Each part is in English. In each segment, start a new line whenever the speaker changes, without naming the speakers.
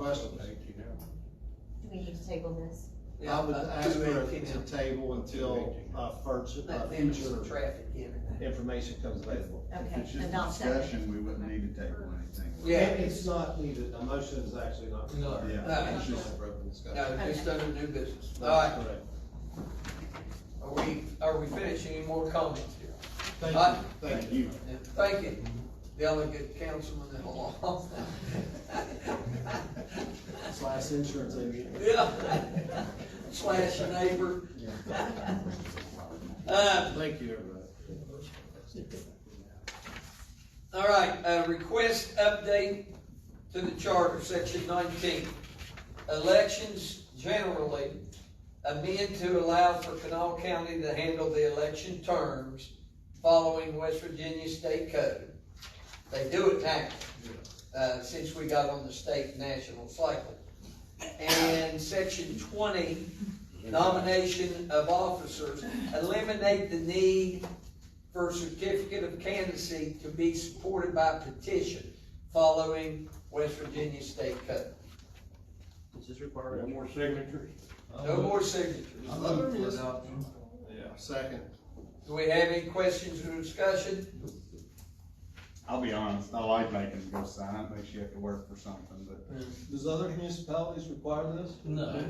questions?
Eighteen hours.
Do we need to table this?
I would
Yeah, uh,
ask
two
for
eighteen
it to
hours.
table until, uh, future, uh,
Let them some
future
traffic in and
information comes available.
If
Okay,
it's just
and I'll second.
discussion, we wouldn't need to table anything.
Yeah.
It- It's not needed, a motion is actually not.
No.
Yeah,
No.
it's just,
Broken
that.
discussion.
No, just
Okay.
under new business. All
That's
right,
correct.
are we, are we finishing? Any more comments here?
Thank
All right.
you.
thank you.
And thank you, delegate councilman at law.
Slash insurance agent.
Yeah. Slash a neighbor. Uh,
Thank you, everybody.
all right, uh, request update to the charter, section nineteen. Elections generally amend to allow for Canal County to handle the election terms following West Virginia State Code. They do it now, uh, since we got on the state national cycle. And section twenty, nomination of officers, eliminate the need for a certificate of candidacy to be supported by petition following West Virginia State Code.
Does this require?
No more signatures?
No more signatures.
I love it. Yeah, second.
Do we have any questions or discussion?
I'll be honest, I like making them go sign, it makes you have to work for something, but
Does other municipalities require this?
No.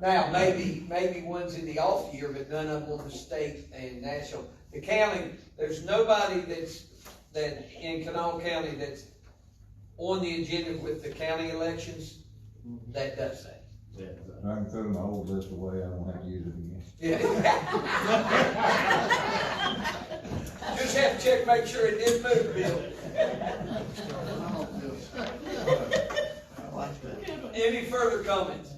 Now, maybe, maybe one's in the off year, but none of them on the state and national. The county, there's nobody that's, that in Kanawha County that's on the agenda with the county elections that does that.
Yeah, exactly.
I can throw my old list away, I don't have to use it again.
Just have to check, make sure it didn't move, Bill.
I like that.
Any further comments,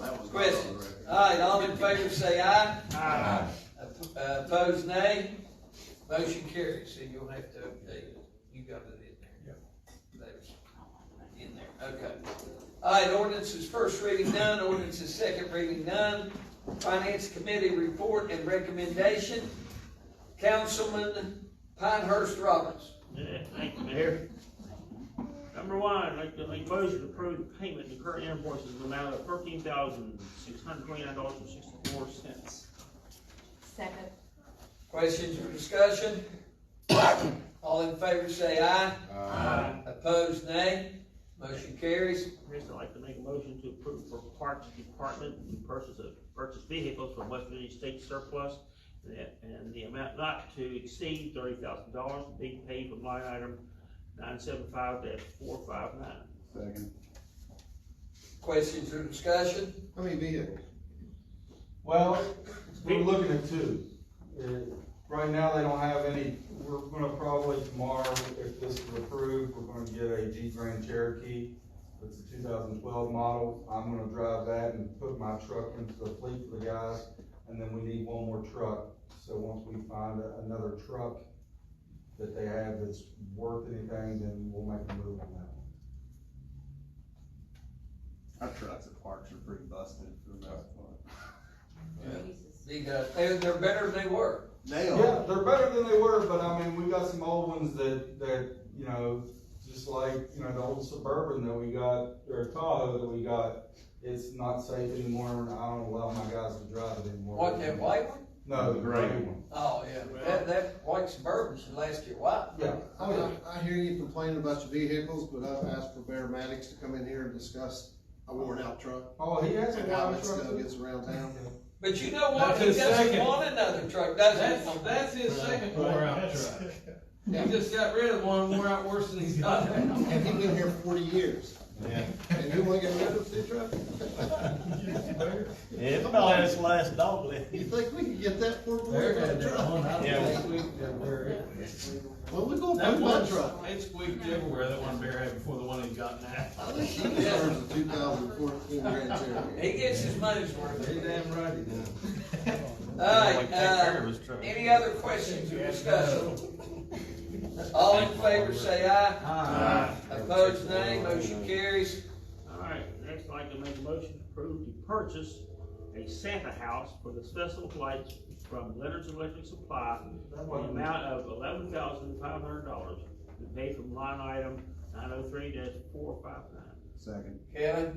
That was.
questions? All right, all in favor say aye.
Ah.
Aye.
Op- uh, Opposed, nay. Motion carries, so you'll have to update it. You got it in there. There's In there, okay. All right, ordinance is first reading none, ordinance is second reading none. Finance Committee report and recommendation. Councilman Pinehurst Roberts.
Yeah, Thank you, Mayor. Number one, I'd like to make a motion to approve the payment of current invoices in the amount of thirteen thousand, six hundred twenty-nine dollars and sixty-four cents.
Second.
Questions or discussion? All in favor say aye.
I'd
Opposed, nay. Motion carries.
like to make a motion to approve for Parks Department the purchase of, purchase vehicles from West Virginia State Surplus that- and the amount not to exceed thirty thousand dollars being paid from line item nine seven five four five nine.
Second.
Questions or discussion?
How many vehicles?
Well, we're looking at two. Uh, Right now, they don't have any, we're gonna probably tomorrow, if this is approved, we're gonna get a Jeep Grand Cherokee. It's a two thousand twelve model. I'm gonna drive that and put my truck into the fleet for the guys. And then we need one more truck. So once we find a- another truck that they have that's worth anything, then we'll make a move on that.
our trucks at parks are pretty busted for the most part.
They, uh, they're, they're better than they were.
They
Yeah, they're better than they were, but I mean, we got some old ones that, that, you know, just like, you know, the old Suburban that we got, or Tahoe that we got, it's not safe anymore, and I don't allow my guys to drive it anymore.
What, that white one?
No, the gray one.
Oh, yeah, that, that white Suburban should last you a while.
Yeah,
I mean, I I hear you complaining about your vehicles, but I've asked for Bearmatics to come in here and discuss a worn out truck.
oh, he has a
And how
white
it still
truck.
gets around town.
But you know what?
That's
He
his
doesn't
second.
want another truck, does he?
That's, that's his second wore out truck.
Yeah.
He just got rid of one, wore out worse than he's got now.
And he's been here forty years.
Yeah.
And you wanna get rid of the truck?
It's about his last dog
You think we can get that for a worn-out truck?
Yeah.
Well, we gonna move
That
that
one
truck.
truck, it squeaked everywhere, that one bear had before the one he got now.
I think she deserves a two thousand fourteen Grand Cherokee.
He gets his money's worth.
He damn right he does.
All right, uh, any other questions or discussion? All in favor, say aye.
Aye.
Opposed, nay. Motion carries.
All right, next I'd like to make a motion to approve the purchase a Santa house for the special lights from Leonard's Electric Supply
That
for the
one-
amount of eleven thousand five hundred dollars to pay from line item nine oh three four five nine.
Second.
Kevin?